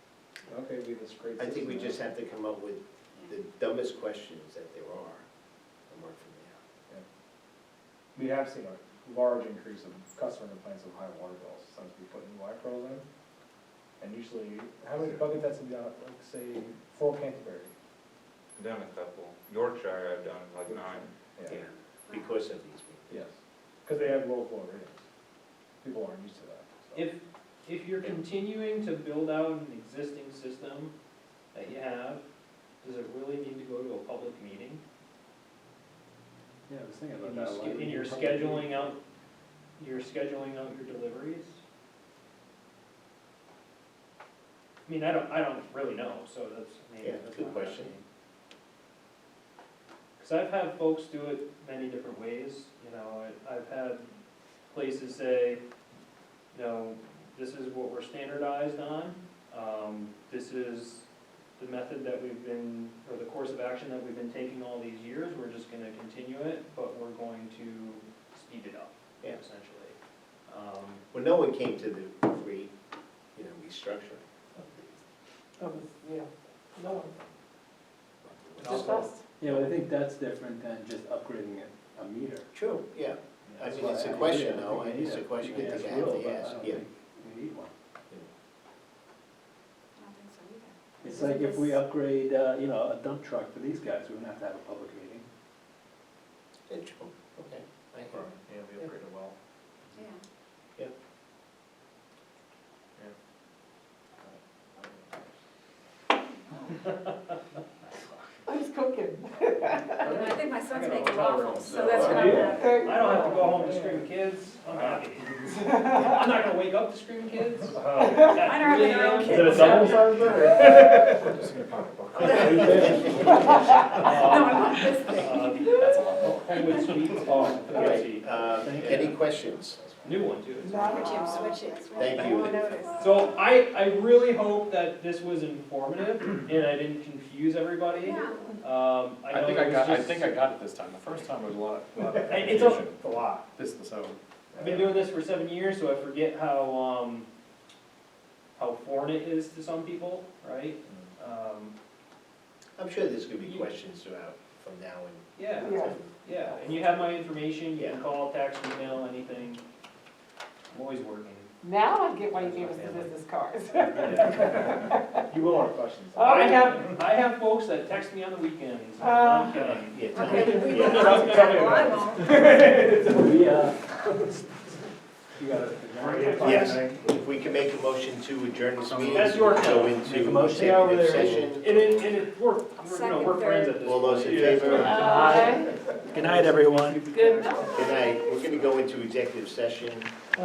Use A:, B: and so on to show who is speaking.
A: maybe this great
B: I think we
A: system.
B: just have to come up with the dumbest questions that there are and work from there.
A: We have seen a large increase of customer complaints of high water bills since we put new light poles in. And usually, how many bucket tests have you done, like, say, for Canterbury?
C: I've done a couple. Yorkshire, I've done like nine.
B: Yeah, because of these people.
A: Yes, because they have low flow ratings. People aren't used to that, so.
D: If, if you're continuing to build out an existing system that you have, does it really need to go to a public meeting?
E: Yeah, I was thinking
D: And
E: about
D: you
E: that.
D: sch-
E: Why would
D: and
E: you
D: you're
E: publicly-
D: scheduling out, you're scheduling out your deliveries? I mean, I don't, I don't really know, so that's maybe.
B: Yeah,
D: that's
B: good
D: not
B: question.
D: happening. Cause I've had folks do it many different ways, you know, I- I've had places say, you know, this is what we're standardized on, um, this is the method that we've been, or the course of action that we've been taking all these years, we're just gonna continue it, but we're going to speed it up,
B: Yeah.
D: essentially. Um,
B: Well, no one came to the re, you know, restructuring.
F: Yeah, no one,
A: And
F: just
A: also,
F: us.
E: Yeah, but I think that's different than just upgrading a, a meter.
B: True, yeah. I
E: That's
B: mean,
E: why
B: it's a
E: I-
B: question,
E: yeah, I
B: though,
E: think
B: and
E: we
B: it's a
E: need
B: question
E: we
B: that they
E: ask
B: have
E: Will,
B: to
E: but I
B: ask,
E: don't
B: yeah.
E: think We need one.
F: I don't think so either.
E: It's like if we upgrade, uh, you know, a dump truck for these guys, we wouldn't have to have a public meeting.
B: Yeah, true, okay. I hear
A: Or,
B: you.
A: Yeah, we upgrade it well.
F: Yeah, I was cooking. I think my son's
D: gotta
F: making
D: go home.
F: waffles, so that's what I'm
A: Yeah.
F: having.
D: I don't have to go home to scream kids, I'm happy. I'm not gonna wake up to scream kids.
A: Uh,
F: I don't have any real
D: Is
A: Is
D: it
A: it a
F: kids.
A: double sized bed? or-
F: No,
D: Um,
F: I want this thing.
D: Uh, That's awful. With sweets, oh,
B: All
D: okay.
B: right, uh,
E: Thank
B: any
E: you.
B: questions?
D: New one too. it's-
F: Switch him, switch it, switch it.
B: Thank you.
F: No notice.
D: So I, I really hope that this was informative and I didn't confuse everybody.
F: Yeah.
D: Um, I
G: I
D: know
G: think
D: it
G: I got, I
D: was
G: think
D: just,
G: I got it this time, the first time was a lot, a lot of
D: Hey, it's a-
G: confusion.
A: It's a lot.
G: This, this, oh,
D: I've been doing this for seven years, so I forget how, um, how foreign it is to some people, right? Um,
B: I'm sure there's gonna be questions throughout, from now and.
D: yeah,
F: Yeah.
D: yeah, and you have my information, you can
B: Yeah.
D: call, text, email, anything. I'm always working.
F: Now I get why you gave us the business cards.
A: You will have questions.
F: Oh,
D: Uh, I
F: yeah.
D: have, I have folks that text me on the weekends,
F: Ah.
D: I'm kidding.
B: Yeah, tell
F: Okay,
B: me.
F: we
B: Yeah.
F: will not do that. Well, I won't.
E: We, uh, you gotta.
B: Yes. If we can make a motion to adjourn this meeting.
D: That's your
B: Go
D: call.
E: Make
B: into
E: a motion.
B: executive
E: Stay over
B: session.
D: And it, and it, we're, we're, you know,
F: Second,
D: we're friends at this point.
B: All those in
D: Yeah.
B: favor?
F: Aye.
E: Good night, everyone.
F: Good night.
B: Good night. We're gonna go into executive session.